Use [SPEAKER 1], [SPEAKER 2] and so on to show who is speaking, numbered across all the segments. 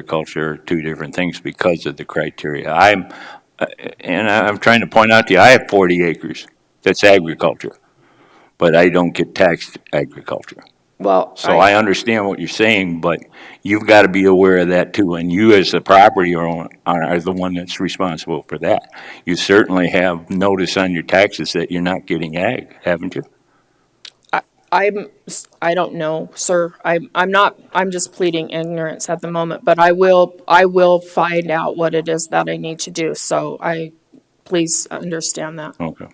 [SPEAKER 1] agriculture are two different things because of the criteria. I'm, uh, and I'm trying to point out to you, I have 40 acres. That's agriculture. But I don't get taxed agriculture.
[SPEAKER 2] Well,
[SPEAKER 1] So I understand what you're saying, but you've got to be aware of that too. And you, as the property owner, are the one that's responsible for that. You certainly have notice on your taxes that you're not getting ag, haven't you?
[SPEAKER 3] I'm, s- I don't know, sir. I'm, I'm not, I'm just pleading ignorance at the moment, but I will, I will find out what it is that I need to do. So I, please understand that.
[SPEAKER 1] Okay.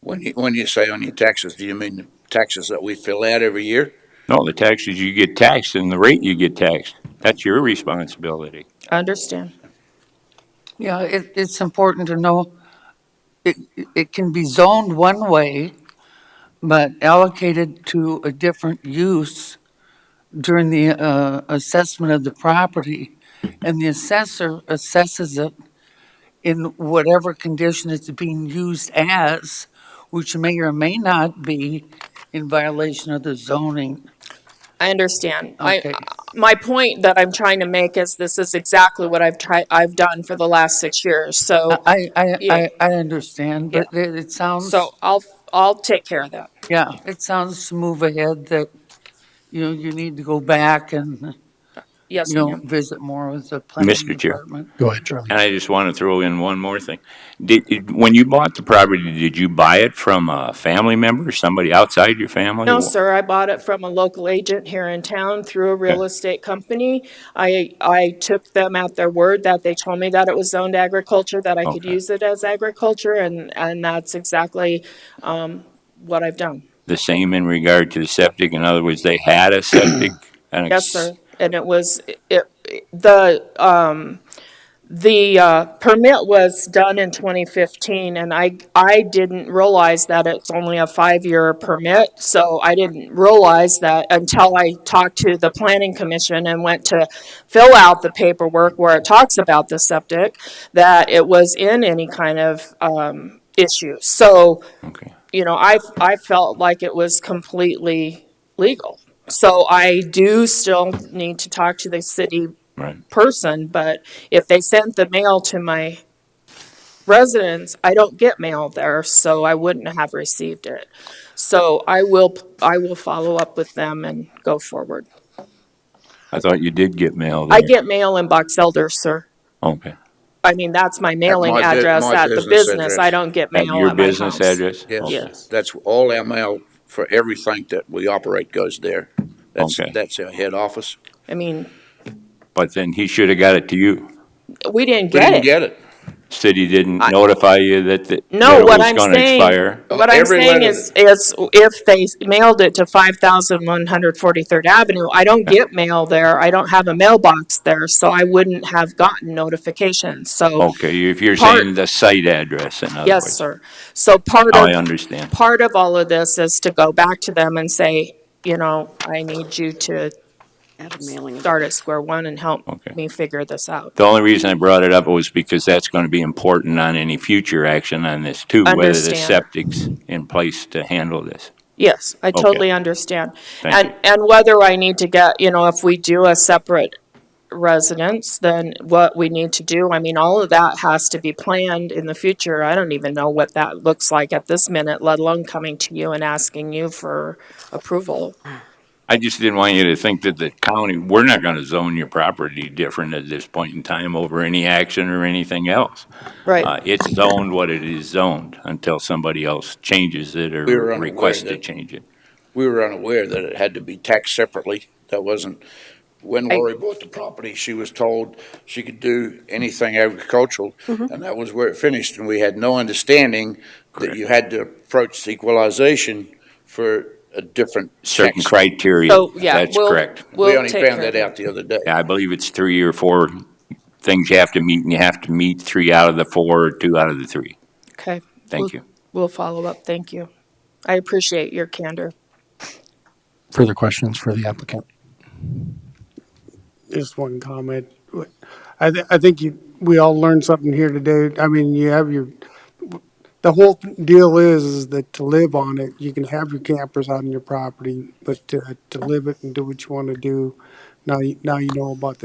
[SPEAKER 4] When you, when you say on your taxes, do you mean the taxes that we fill out every year?
[SPEAKER 1] No, the taxes you get taxed and the rate you get taxed, that's your responsibility.
[SPEAKER 3] I understand.
[SPEAKER 5] Yeah, it, it's important to know, it, it can be zoned one way, but allocated to a different use during the, uh, assessment of the property. And the assessor assesses it in whatever condition it's being used as, which may or may not be in violation of the zoning.
[SPEAKER 3] I understand. I,
[SPEAKER 5] Okay.
[SPEAKER 3] my point that I'm trying to make is this is exactly what I've tried, I've done for the last six years. So,
[SPEAKER 5] I, I,
[SPEAKER 3] Yeah.
[SPEAKER 5] I, I understand, but it, it sounds.
[SPEAKER 3] so I'll, I'll take care of that.
[SPEAKER 5] Yeah, it sounds to move ahead that, you know, you need to go back and,
[SPEAKER 3] Yes,
[SPEAKER 5] you know,
[SPEAKER 3] ma'am.
[SPEAKER 5] visit more with the planning
[SPEAKER 1] Mr. Chair.
[SPEAKER 5] department.
[SPEAKER 6] Go ahead, Charlie.
[SPEAKER 1] And I just want to throw in one more thing. Did, did- when you bought the property, did you buy it from a family member, somebody outside your family?
[SPEAKER 3] No, sir, I bought it from a local agent here in town through a real estate company. I, I took them at their word that they told me that it was zoned agriculture, that I could
[SPEAKER 1] Okay.
[SPEAKER 3] use it as agriculture, and, and that's exactly, um, what I've done.
[SPEAKER 1] The same in regard to the septic? In other words, they had a septic? and a-
[SPEAKER 3] Yes, sir. And it was, it, the, um, the, uh, permit was done in twenty fifteen, and I, I didn't realize that it's only a five-year permit, so I didn't realize that until I talked to the planning commission and went to fill out the paperwork where it talks about the septic, that it was in any kind of, um, issue. So,
[SPEAKER 1] Okay.
[SPEAKER 3] you know, I, I felt like it was completely legal. So I do still need to talk to the city
[SPEAKER 1] Right.
[SPEAKER 3] person, but if they sent the mail to my residence, I don't get mail there, so I wouldn't have received it. So I will, I will follow up with them and go forward.
[SPEAKER 1] I thought you did get mail there.
[SPEAKER 3] I get mail in Box Elder, sir.
[SPEAKER 1] Okay.
[SPEAKER 3] I mean, that's my mailing
[SPEAKER 4] my bu-
[SPEAKER 3] address
[SPEAKER 4] my
[SPEAKER 3] at the
[SPEAKER 4] business
[SPEAKER 3] business. I
[SPEAKER 4] address.
[SPEAKER 3] don't get
[SPEAKER 1] At
[SPEAKER 3] mail
[SPEAKER 1] your
[SPEAKER 3] at my
[SPEAKER 1] business
[SPEAKER 3] house.
[SPEAKER 1] address?
[SPEAKER 4] Yes.
[SPEAKER 1] Okay.
[SPEAKER 3] Yes.
[SPEAKER 4] That's all our mail for everything that we operate goes there. That's,
[SPEAKER 1] Okay.
[SPEAKER 4] that's our head office.
[SPEAKER 3] I mean,
[SPEAKER 1] But then he should have got it to you.
[SPEAKER 3] we didn't
[SPEAKER 4] We
[SPEAKER 3] get
[SPEAKER 4] didn't
[SPEAKER 3] it.
[SPEAKER 4] get it.
[SPEAKER 1] City didn't notify you that, the- that
[SPEAKER 3] No,
[SPEAKER 1] it
[SPEAKER 3] what
[SPEAKER 1] was
[SPEAKER 3] I'm
[SPEAKER 1] going to
[SPEAKER 3] saying,
[SPEAKER 1] expire?
[SPEAKER 3] what I'm
[SPEAKER 4] Every
[SPEAKER 3] saying
[SPEAKER 4] letter.
[SPEAKER 3] is, is if they mailed it to five thousand one hundred forty-third Avenue, I don't get mail there. I don't have a mailbox there, so I wouldn't have gotten notification. So,
[SPEAKER 1] Oh, Okay, if you're
[SPEAKER 3] Part-
[SPEAKER 1] saying the site address, in other words.
[SPEAKER 3] yes, sir. So part
[SPEAKER 1] I
[SPEAKER 3] of,
[SPEAKER 1] understand.
[SPEAKER 3] part of all of this is to go back to them and say, you know, I need you to
[SPEAKER 2] Add a mailing address.
[SPEAKER 3] start at square one and help
[SPEAKER 1] Okay.
[SPEAKER 3] me figure this out.
[SPEAKER 1] The only reason I brought it up was because that's going to be important on any future action on this too, whether the
[SPEAKER 3] Understand.
[SPEAKER 1] septic's in place to handle this.
[SPEAKER 3] Yes, I totally
[SPEAKER 1] Okay.
[SPEAKER 3] understand.
[SPEAKER 1] Thank
[SPEAKER 3] And, and whether I need to get, you know, if we do a separate residence, then what we need to do, I mean, all of that has to be planned in the future. I don't even know what that looks like at this minute, let alone coming to you and asking you for approval.
[SPEAKER 1] I just didn't want you to think that the county, we're not going to zone your property different at this point in time over any action or anything else. Uh,
[SPEAKER 3] Right,
[SPEAKER 1] It's zoned what it is zoned until somebody else changes it or
[SPEAKER 4] We were unaware
[SPEAKER 1] requests to
[SPEAKER 4] that-
[SPEAKER 1] change it.
[SPEAKER 4] We were unaware that it had to be taxed separately. That wasn't, when
[SPEAKER 3] I-
[SPEAKER 4] Lori bought the property, she was told she could do anything agricultural.
[SPEAKER 3] Mm-hmm.
[SPEAKER 4] And that was where it finished, and we had no understanding that you had to approach equalization for a different
[SPEAKER 1] Certain
[SPEAKER 4] tax.
[SPEAKER 1] criteria,
[SPEAKER 3] so, Oh, yeah,
[SPEAKER 1] that's
[SPEAKER 3] we'll,
[SPEAKER 1] correct.
[SPEAKER 4] We
[SPEAKER 3] we'll
[SPEAKER 4] only
[SPEAKER 3] take care
[SPEAKER 4] found
[SPEAKER 3] of
[SPEAKER 4] that
[SPEAKER 3] it.
[SPEAKER 4] out the other day.
[SPEAKER 1] Yeah, I believe it's three or four things you have to meet, and you have to meet three out of the four or two out of the three.
[SPEAKER 3] Okay. We'll-
[SPEAKER 1] Thank you.
[SPEAKER 3] We'll follow up, thank you. I appreciate your candor.
[SPEAKER 6] Further questions for the applicant?
[SPEAKER 7] just one comment. I, th- I think you, we all learned something here today. I mean, you have your, the whole deal is, is that to live on it, you can have your campers out on your property, but to, to live it and do what you want to do Now, you now you know about the